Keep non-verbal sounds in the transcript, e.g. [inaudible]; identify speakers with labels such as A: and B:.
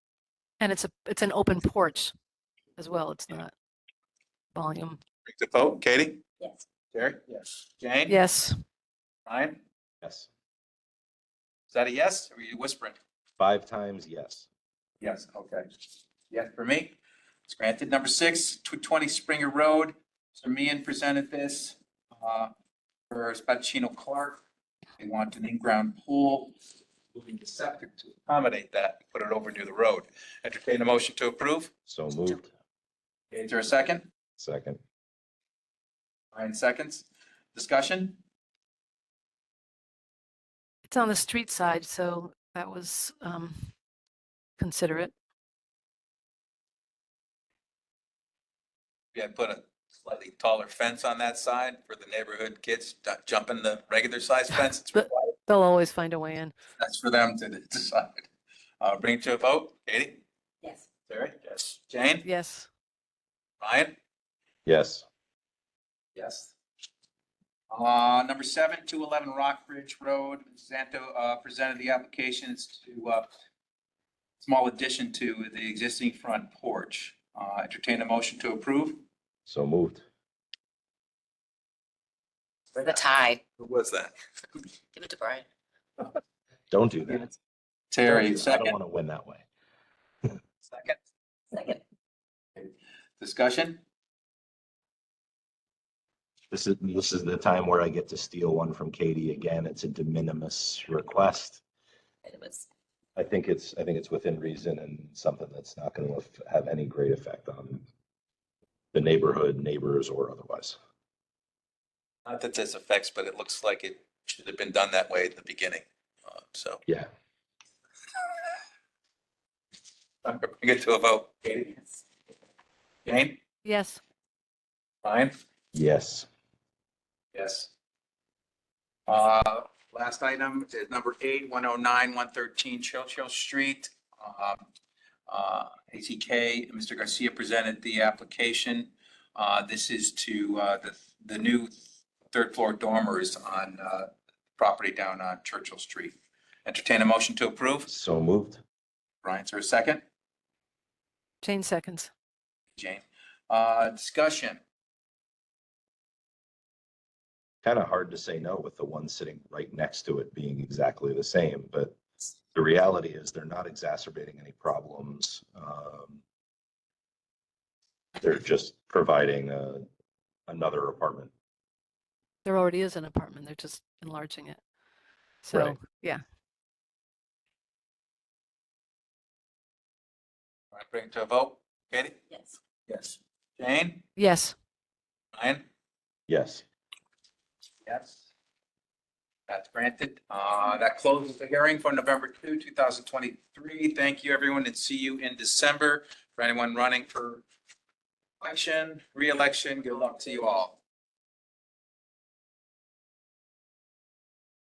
A: And it's a, it's an open porch as well. It's
B: Yeah.
A: not volume.
B: Take the vote. Katie?
C: Yes.
B: Terry? Yes. Jane?
A: Yes,
B: Ryan?
D: Yes.
B: Is that a yes? Or are you whispering?
D: Five times yes.
B: Yes, okay. Yes, for me. It's granted. Number six, 220 Springer Road. Mr. Meehan presented this uh, for Spatino Clark. They want an in-ground pool, moving the septic to accommodate that, put it over near the road. Entertain a motion to approve.
D: So moved.
B: Is there a second?
D: Second.
B: Ryan seconds. Discussion?
A: it's on the street side, so that was um considerate.
B: Yeah, put a slightly taller fence on that side for the neighborhood kids not jumping the regular size fence. It's
A: But-
B: required.
A: They'll always find a way in.
B: That's for them to [laughs] decide. Uh, bring it to a vote. Katie?
C: Yes.
B: Terry? Yes. Jane?
A: Yes,
B: Ryan?
D: Yes.
B: Yes. Uh, number seven, two eleven Rockbridge Road, Zanto, uh, presented the applications to, uh, small addition to the existing front porch. Uh, entertain a motion to approve?
D: So moved.
C: For the tie.
B: Who was that?
C: Give it to Brian.
D: Don't do that.
B: Terry,
D: I don't
B: second,
D: want to win that way.
B: second,
C: Second.
B: discussion?
D: This is, this is the time where I get to steal one from Katie again. It's a de minimis request.
C: And It was,
D: I think it's, I think it's within reason and something that's not going to have any great effect on the neighborhood, neighbors or otherwise.
B: Not that this affects, but it looks like it should have been done that way at the beginning, uh, so.
D: Yeah.
B: Bring it to a vote. Katie?
C: yes.
B: Jane?
A: yes,
B: Ryan?
D: Yes.
B: Yes. Uh, last item is number eight, one oh nine, one thirteen Churchill Street. Um, uh, ATK, Mr. Garcia presented the application. Uh, this is to, uh, the, the new third floor dormers on, uh, property down on Churchill Street. Entertain a motion to approve.
D: So moved.
B: Ryan, is there a second?
A: Jane seconds.
B: Jane, uh, discussion.
D: kind of hard to say no with the one sitting right next to it being exactly the same, but the reality is they're not exacerbating any problems. Um, They're just providing uh, another apartment.
A: There already is an apartment. They're just enlarging it. So, yeah,
B: All right, Bring it to a vote. Katie?
C: Yes.
B: Yes. Jane?
A: yes,
B: Ryan?
D: Yes,
B: Yes. That's granted. Uh, That closes the hearing for November 2, 2023. Thank you, everyone, and see you in December. For anyone running for election, reelection, good luck to you all.